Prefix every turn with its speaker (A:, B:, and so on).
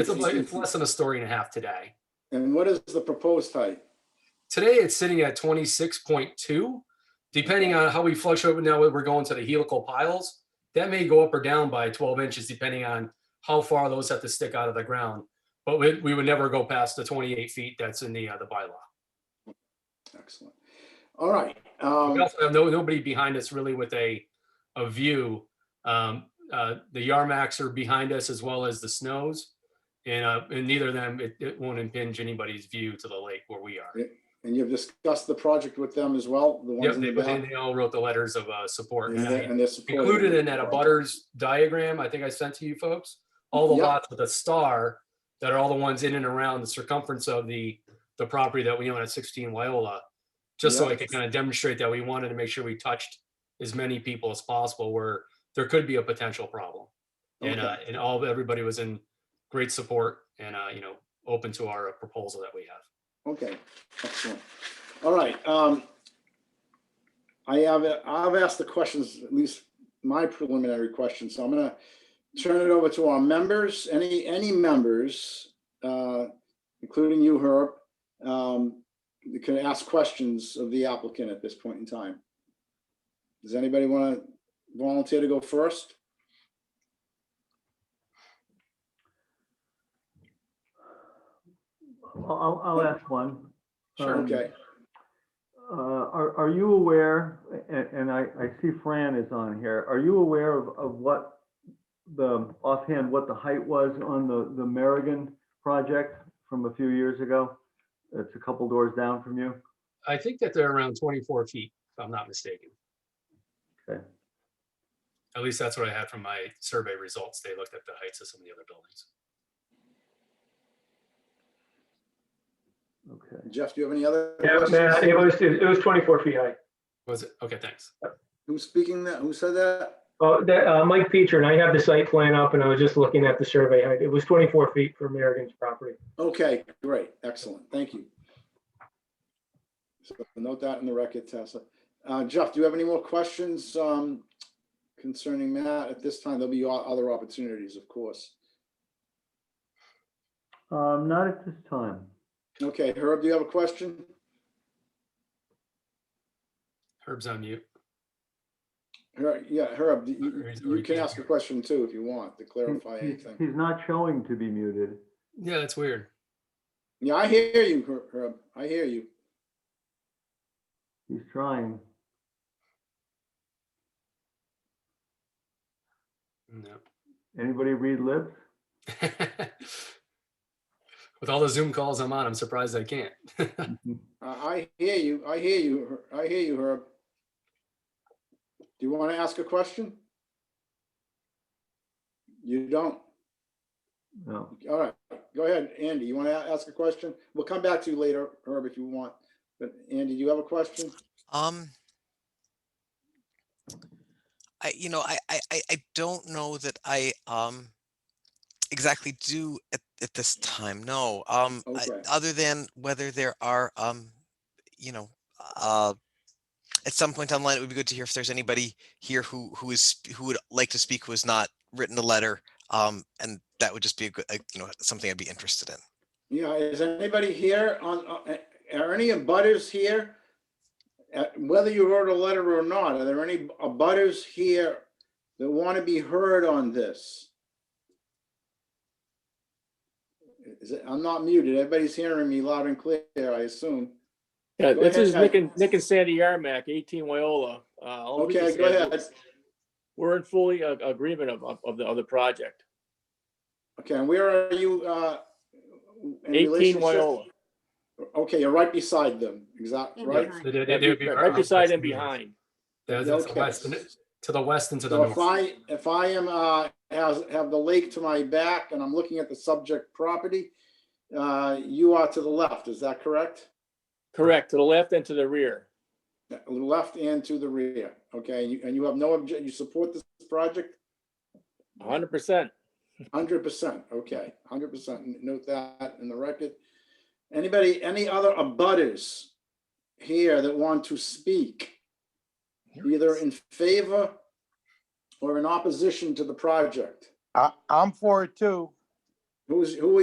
A: It's about, it's less than a story and a half today.
B: And what is the proposed height?
A: Today, it's sitting at twenty-six point two. Depending on how we flush over now, we're going to the helical piles. That may go up or down by twelve inches depending on how far those have to stick out of the ground. But we, we would never go past the twenty-eight feet that's in the, uh, the bylaw.
B: Excellent. All right. um,
A: We also have no, nobody behind us really with a, a view. Um, uh, the Yarmaks are behind us as well as the snows. And, uh, and neither of them, it, it won't impinge anybody's view to the lake where we are.
B: And you've discussed the project with them as well, the
A: Yep,
B: ones in
A: they,
B: the
A: but they
B: back?
A: they all wrote the letters of, uh, support.
B: And
A: and
B: they're-
A: I
B: and they're supportive.
A: Included in that a butters diagram, I think I sent to you folks, all the
B: Yep.
A: lots with a star that are all the ones in and around the circumference of the, the property that we own at sixteen Wyola. Just so I
B: Yep.
A: could kind of demonstrate that we wanted to make sure we touched as many people as possible where there could be a potential problem. And,
B: Okay.
A: uh, and all, everybody was in great support and, uh, you know, open to our proposal that we have.
B: Okay, excellent. All right. um, I have, I've asked the questions, at least my preliminary questions, so I'm gonna turn it over to our members, any, any members, uh, including you, Herb, um, you can ask questions of the applicant at this point in time. Does anybody want to volunteer to go first?
C: I'll, I'll I'll ask one.
A: Sure.
C: Um,
B: Okay,
C: uh, Are, are you aware, a- and I, I see Fran is on here, are you aware of, of what the, offhand, what the height was on the, the Marigan project from a few years ago? It's a couple doors down from you.
A: I think that they're around twenty-four feet, if I'm not mistaken.
C: Okay.
A: At least that's what I had from my survey results. They looked at the heights of some of the other buildings.
C: Okay.
B: Jeff, do you have any other?
D: Yeah, man,
B: questions?
D: it was, it was 24 feet high.
A: Was it? Okay, thanks.
B: Who's speaking that, who said that?
D: Oh, that, uh, Mike Peter and I have the site plan up and I was just looking at the survey height. It was 24 feet for American's property.
B: Okay, great, excellent, thank you. So note that in the record, Tessa. Uh, Jeff, do you have any more questions um, concerning that? At this time, there'll be o- other opportunities, of course.
C: Um, Not at this time.
B: Okay, Herb, do you have a question?
A: Herb's on mute.
B: Her- Yeah, Herb, you-
A: Or he's- or
B: you
A: he
B: you can
A: can't
B: ask a
A: hear.
B: question too if you want to clarify
C: He- he's-
B: anything.
C: He's not showing to be muted.
A: Yeah, that's weird.
B: Yeah, I hear you, Her- Herb, I hear you.
C: He's trying.
A: No.
C: Anybody read lips?
A: With all the Zoom calls I'm on, I'm surprised I can't.
B: I I hear you, I hear you, Her- I hear you, Herb. Do you want to ask a question? You don't?
C: No.
B: All right, go ahead, Andy, you want to ask a question? We'll come back to you later, Herb, if you want. But Andy, do you have a question?
E: Um, I, you know, I, I, I I don't know that I, um, exactly do at, at this time, no. Um, I-
B: Okay.
E: other than whether there are, um, you know, uh, at some point online, it would be good to hear if there's anybody here who, who is, sp- who would like to speak, who has not written a letter. Um, and that would just be a good, a- you know, something I'd be interested in.
B: Yeah, is anybody here on, uh, are any abutters here? Uh, Whether you wrote a letter or not, are there any abutters here that want to be heard on this? Is it, I'm not muted, everybody's hearing me loud and clear, I assume.
F: Yeah,
B: Go
F: this
B: ahead,
F: is
B: guys.
F: Nick and, Nick and Sandy Yarmack, 18 Wyola. Uh, all we can
B: Okay,
F: say
B: go
F: is
B: ahead.
F: We're in fully uh, agreement of, of, of the, of the project.
B: Okay, and where are you? uh, in
F: 18
B: relationship?
F: Wyola,
B: Okay, you're right beside them, exactly,
G: Yeah,
B: right?
G: behind.
A: They- they- they would be
F: right beside and
A: behind.
F: behind.
A: That's- that's
B: Okay.
A: west and- To the west and to the
B: So if
A: north.
B: I, if I am, uh, has, have the lake to my back and I'm looking at the subject property, uh, you are to the left, is that correct?
F: Correct, to the left and to the rear.
B: Left and to the rear, okay, you- and you have no obje, you support this project?
F: 100%.
B: Hundred percent, okay, hundred percent, note that in the record. Anybody, any other abutters here that want to speak? Either in favor or in opposition to the project?
H: I, I'm for it too.
B: Who was, who was